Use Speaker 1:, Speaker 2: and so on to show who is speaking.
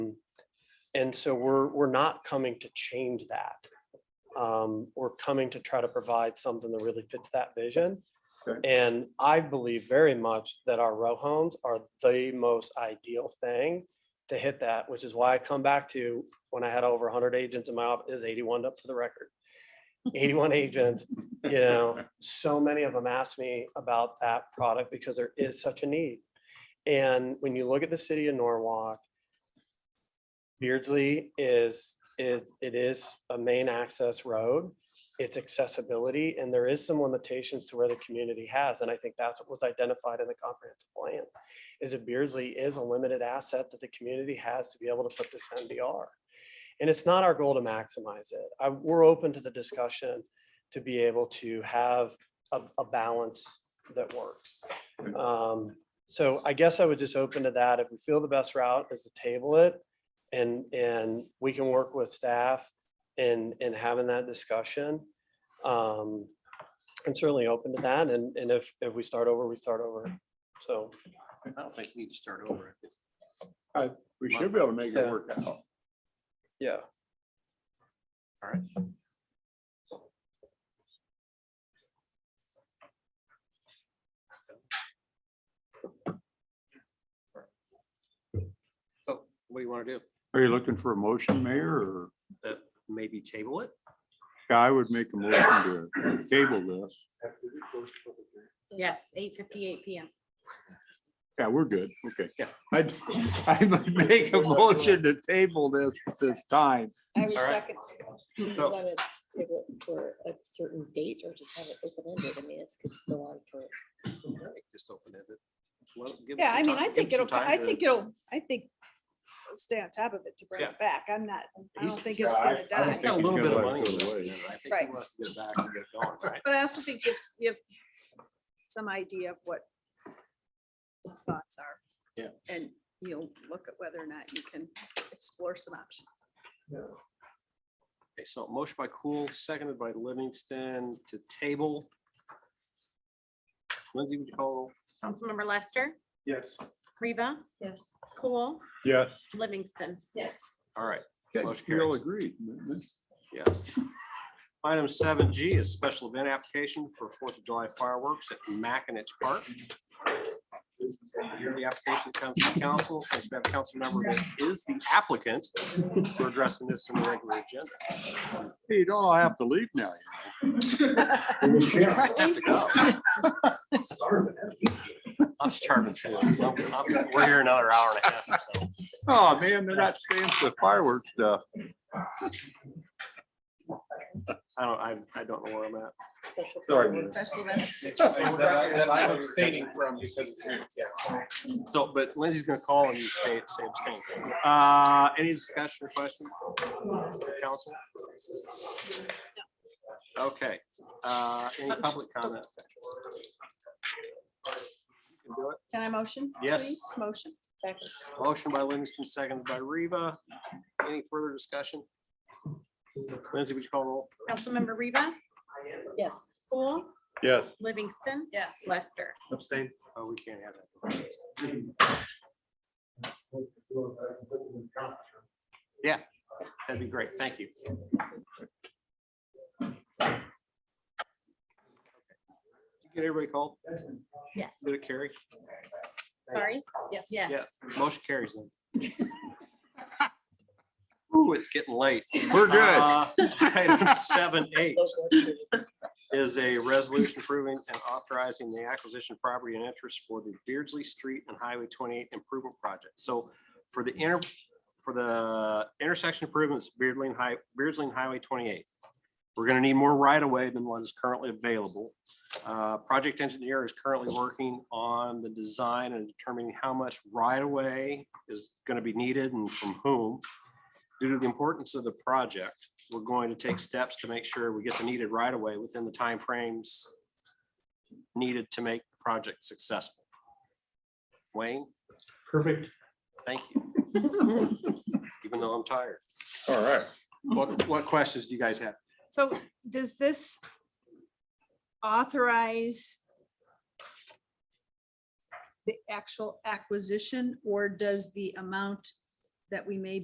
Speaker 1: And so we're, we're not coming to change that. Um, We're coming to try to provide something that really fits that vision.
Speaker 2: Okay.
Speaker 1: And I believe very much that our row homes are the most ideal thing to hit that, which is why I come back to when I had over hundred agents in my office, is eighty-one up for the record. Eighty-one agents, you know, so many of them ask me about that product because there is such a need. And when you look at the city of Norwalk, Beardsley is, is, it is a main access road. It's accessibility and there is some limitations to where the community has. And I think that's what was identified in the comprehensive plan. Is that Beardsley is a limited asset that the community has to be able to put this MDR. And it's not our goal to maximize it. I, we're open to the discussion to be able to have a, a balance that works. Um, so I guess I would just open to that. If we feel the best route is to table it and, and we can work with staff in, in having that discussion. Um, I'm certainly open to that. And, and if, if we start over, we start over. So,
Speaker 3: I don't think you need to start over.
Speaker 2: We should be able to make it
Speaker 1: Yeah.
Speaker 2: work out.
Speaker 1: yeah.
Speaker 3: So Oh, what do you want to do?
Speaker 2: Are you looking for a motion, Mayor, or?
Speaker 3: Maybe table it?
Speaker 2: Yeah, I would make a motion to table this.
Speaker 4: Yes, eight fifty-eight PM.
Speaker 2: Yeah, we're good. Okay.
Speaker 3: Yeah.
Speaker 2: I'd, I would make a motion to table this at this time.
Speaker 5: I would
Speaker 3: All right.
Speaker 5: second. Do you
Speaker 3: So-
Speaker 5: want to table it for a certain date or just have it open ended? I mean, this could go on for.
Speaker 3: Just open it. Well, give
Speaker 6: Yeah,
Speaker 3: some
Speaker 6: I mean,
Speaker 3: time-
Speaker 6: I
Speaker 3: give
Speaker 6: think
Speaker 3: some
Speaker 6: it'll,
Speaker 3: time
Speaker 6: I
Speaker 3: to-
Speaker 6: think it'll, I think we'll stay on top of it to bring
Speaker 3: Yeah.
Speaker 6: it back. I'm not, I
Speaker 3: He's-
Speaker 6: don't think it's
Speaker 2: Yeah,
Speaker 6: gonna
Speaker 2: I don't
Speaker 3: He's
Speaker 6: die.
Speaker 3: got a
Speaker 2: think
Speaker 3: little
Speaker 2: he's
Speaker 3: bit of
Speaker 2: gonna
Speaker 3: money.
Speaker 2: let it
Speaker 3: left
Speaker 2: go
Speaker 3: in
Speaker 2: away.
Speaker 3: it. I think he
Speaker 6: Right.
Speaker 3: wants to get back and get going, right?
Speaker 6: But I also think gives, you have some idea of what his thoughts are.
Speaker 3: Yeah.
Speaker 6: And you'll look at whether or not you can explore some options.
Speaker 3: Okay, so motion by Cool, seconded by Livingston to table. Lindsay, would you call?
Speaker 4: Councilmember Lester,
Speaker 3: Yes.
Speaker 4: Reba,
Speaker 5: Yes.
Speaker 4: Cool,
Speaker 2: Yeah.
Speaker 4: Livingston.
Speaker 5: Yes.
Speaker 3: All right,
Speaker 2: Okay,
Speaker 3: Motion
Speaker 2: we all
Speaker 3: carries.
Speaker 2: agree.
Speaker 3: yes. Item seven G is special event application for Fourth of July fireworks at Mackinac Park. Here the application comes to council, since we have a council member that is the applicant, we're addressing this in the regular agenda.
Speaker 2: Hey, You don't all have to leave now.
Speaker 3: Have to go. I'm starving. too. I'm- We're here another hour and a half. or so.
Speaker 2: Oh, man, they're not staying for the fireworks stuff.
Speaker 3: I don't, I, I don't know where I'm at.
Speaker 7: I'm abstaining from because it's here.
Speaker 3: So, but Lindsay's gonna call and you stay, say abstain. Uh, any discussion or question? Council? Okay, uh, any public comment? You can do it.
Speaker 6: Can I motion?
Speaker 3: Yes.
Speaker 6: please? Motion.
Speaker 5: Second.
Speaker 3: Motion by Livingston, seconded by Reba. Any further discussion? Lindsay, would you call roll?
Speaker 4: Councilmember Reba,
Speaker 5: Yes.
Speaker 4: Cool,
Speaker 2: Yes.
Speaker 4: Livingston.
Speaker 6: Yes.
Speaker 4: Lester.
Speaker 3: Abstain. Oh, we can't have that. Yeah, that'd be great. Thank you. Get everybody called?
Speaker 4: Yes,
Speaker 3: Did it carry?
Speaker 4: sorry.
Speaker 6: Yes.
Speaker 4: Yes.
Speaker 3: Yeah, Motion carries then. Ooh, it's getting late.
Speaker 2: We're good.
Speaker 3: Uh, item Seven, eight is a resolution approving and authorizing the acquisition of property and interest for the Beardsley Street and Highway twenty-eight improvement project. So for the inter, for the intersection improvements, Beardsley and High, Beardsley and Highway twenty-eight. We're gonna need more right of way than what is currently available. Uh, project engineer is currently working on the design and determining how much right of way is gonna be needed and from whom. Due to the importance of the project, we're going to take steps to make sure we get the needed right away within the timeframes needed to make the project successful. Wayne? Perfect. Thank you. Even though I'm tired.
Speaker 2: All right.
Speaker 3: What, what questions do you guys have?
Speaker 6: So does this authorize the actual acquisition or does the amount that we may